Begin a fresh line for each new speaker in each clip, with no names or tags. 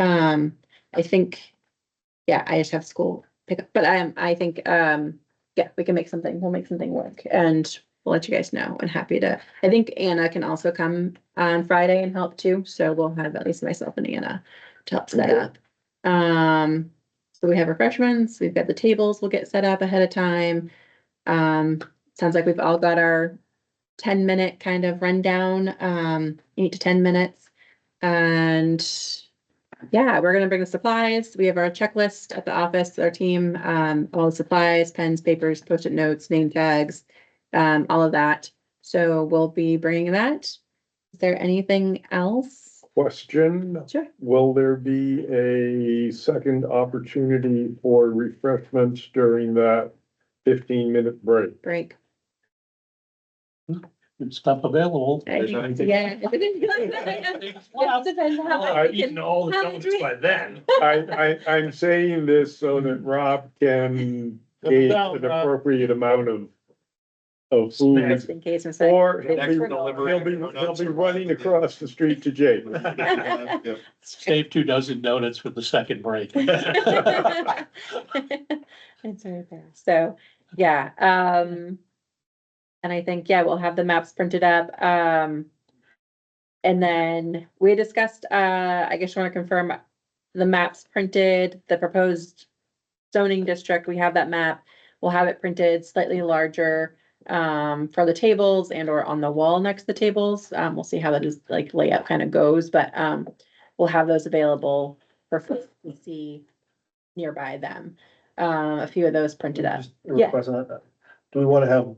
Um, I think, yeah, I just have school pickup, but I, I think, um, yeah, we can make something, we'll make something work and we'll let you guys know. I'm happy to, I think Anna can also come on Friday and help too, so we'll have at least myself and Anna to help set
Okay.
up. Um, so we have refreshments, we've got the tables, we'll get set up ahead of time. Um, sounds like we've all got our ten minute kind of rundown, um, eight to ten minutes. And yeah, we're gonna bring the supplies. We have our checklist at the office, our team, um, all the supplies, pens, papers, post-it notes, name tags, um, all of that. So we'll be bringing that. Is there anything else?
Question,
Sure.
will there be a second opportunity for refreshments during that fifteen minute break?
Break.
and stuff available.
Right.
anything-
Yeah. It depends how much
I've
we can-
eaten all the
how much
donuts
we-
by then.
I, I, I'm saying this so that Rob can gauge an appropriate amount of, of food.
Just in case I'm saying.
Or he'll be, he'll be, he'll be running across the street to Jake.
Save two dozen donuts for the second break.
It's right there. So, yeah, um. And I think, yeah, we'll have the maps printed up, um. And then we discussed, uh, I guess you want to confirm the maps printed, the proposed zoning district, we have that map. We'll have it printed slightly larger, um, for the tables and or on the wall next to the tables. Um, we'll see how that is, like layout kind of goes, but, um, we'll have those available for folks to see nearby them. Um, a few of those printed up.
Just a
Yeah.
request on that. Do we wanna have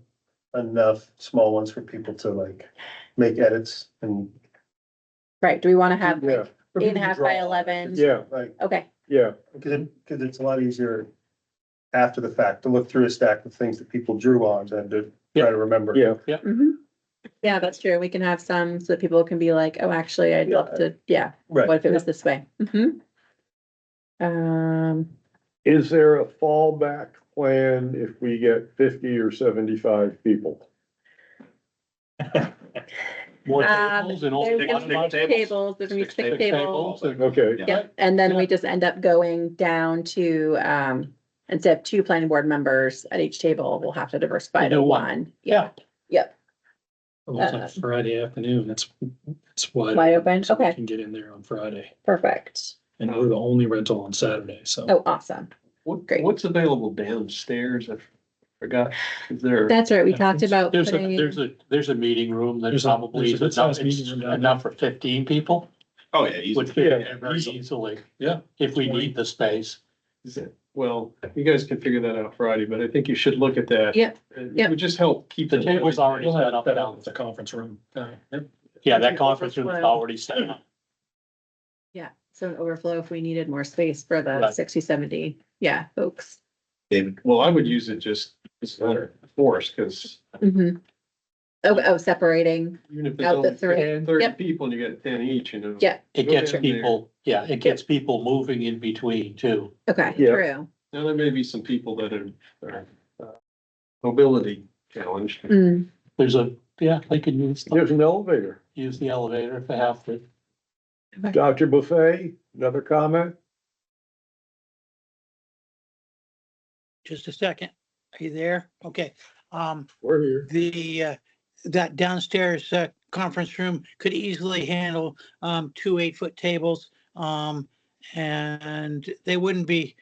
enough small ones for people to like make edits and?
Right, do we want to have
Yeah,
like eight and a half by eleven?
yeah,
Like,
Okay,
yeah.
cause it, cause it's a lot easier after the fact to look through a stack of things that people drew on than to try to remember.
Yeah.
mhm. Yeah, that's true. We can have some so that people can be like, oh, actually, I'd love to, yeah, what
Right,
if it was this way? Mhm. Um,
Is there a fallback plan if we get fifty or seventy-five people?
More
Um,
tables and all.
there's gonna be
Six
tables, there's gonna be
Six
six tables.
tables and-
Okay.
Yeah.
Yep, and then we just end up going down to, um, instead of two planning board members at each table, we'll have to diversify
We
to
do one.
one.
Yeah.
Yep,
It looks
Uh,
like Friday afternoon, that's, that's why.
wide open,
so we
okay,
Can get in there on Friday,
perfect.
and we're the only rental on Saturday, so.
Oh, awesome.
What,
Great.
what's available downstairs? I forgot. Is there?
That's right, we talked about
There's a,
putting-
there's a, there's a meeting room that
There's a-
probably is
there's a
enough,
size meeting room down there.
enough for fifteen people.
Oh, yeah. easy.
Would fit in
Yeah,
there very
easily.
easily.
Yeah.
If we need the space.
Is it- Well, you guys can figure that out Friday, but I think you should look at that.
Yep,
It
yep.
would just help keep.
The
it-
table's already
We'll
set
have
up
that
now.
out with the conference room. Uh, yep.
Yeah,
Okay,
that conference room is
overflow.
already set up.
Yeah, so an overflow if we needed more space for the
Right.
sixty, seventy, yeah, folks.
Well, I would use it just as a matter of force, because
hmm Oh, oh, separating,
even if
Out the
there's
three.
only thirty
Yep.
people and you get ten each, you know.
Yeah.
It
Go
gets
in there.
people, yeah, it gets people moving in between too.
okay,
Yeah.
true.
Now, there may be some people that are, are, uh, mobility challenged.
Mm,
There's a, yeah, they can use, the-
There's an elevator.
use the elevator if they have to.
Dr. Buffet, another comment?
Just a second. Are you there? Okay. Um,
We're here.
the, uh, that downstairs, uh, conference room could easily handle, um, two eight-foot tables. Um, and they wouldn't be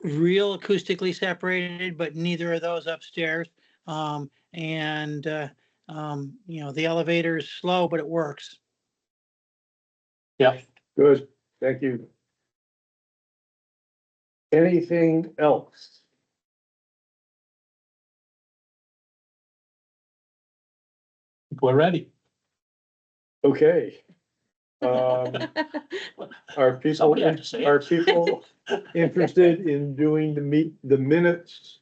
real acoustically separated, but neither of those upstairs. Um, and, uh, um, you know, the elevator is slow, but it works.
Good, thank you. Anything else?
We're ready.
Okay. Um, are people,
Somebody have to say it.
are people interested in doing the meet, the minutes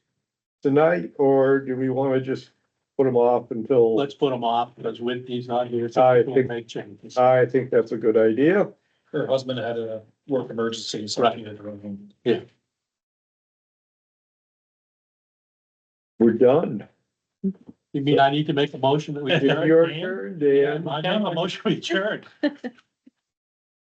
tonight? Or do we want to just put them off until,
Let's put them off because Whitney's not here, so
I
we'll
think-
make changes.
I think that's a good idea.
Her husband had a work emergency, so
Right.
she had to run home.
We're done.
You mean I need to make a motion that we
You're
adjourn?
adjourned,
Dan?
Dan.
I have a motion we adjourn.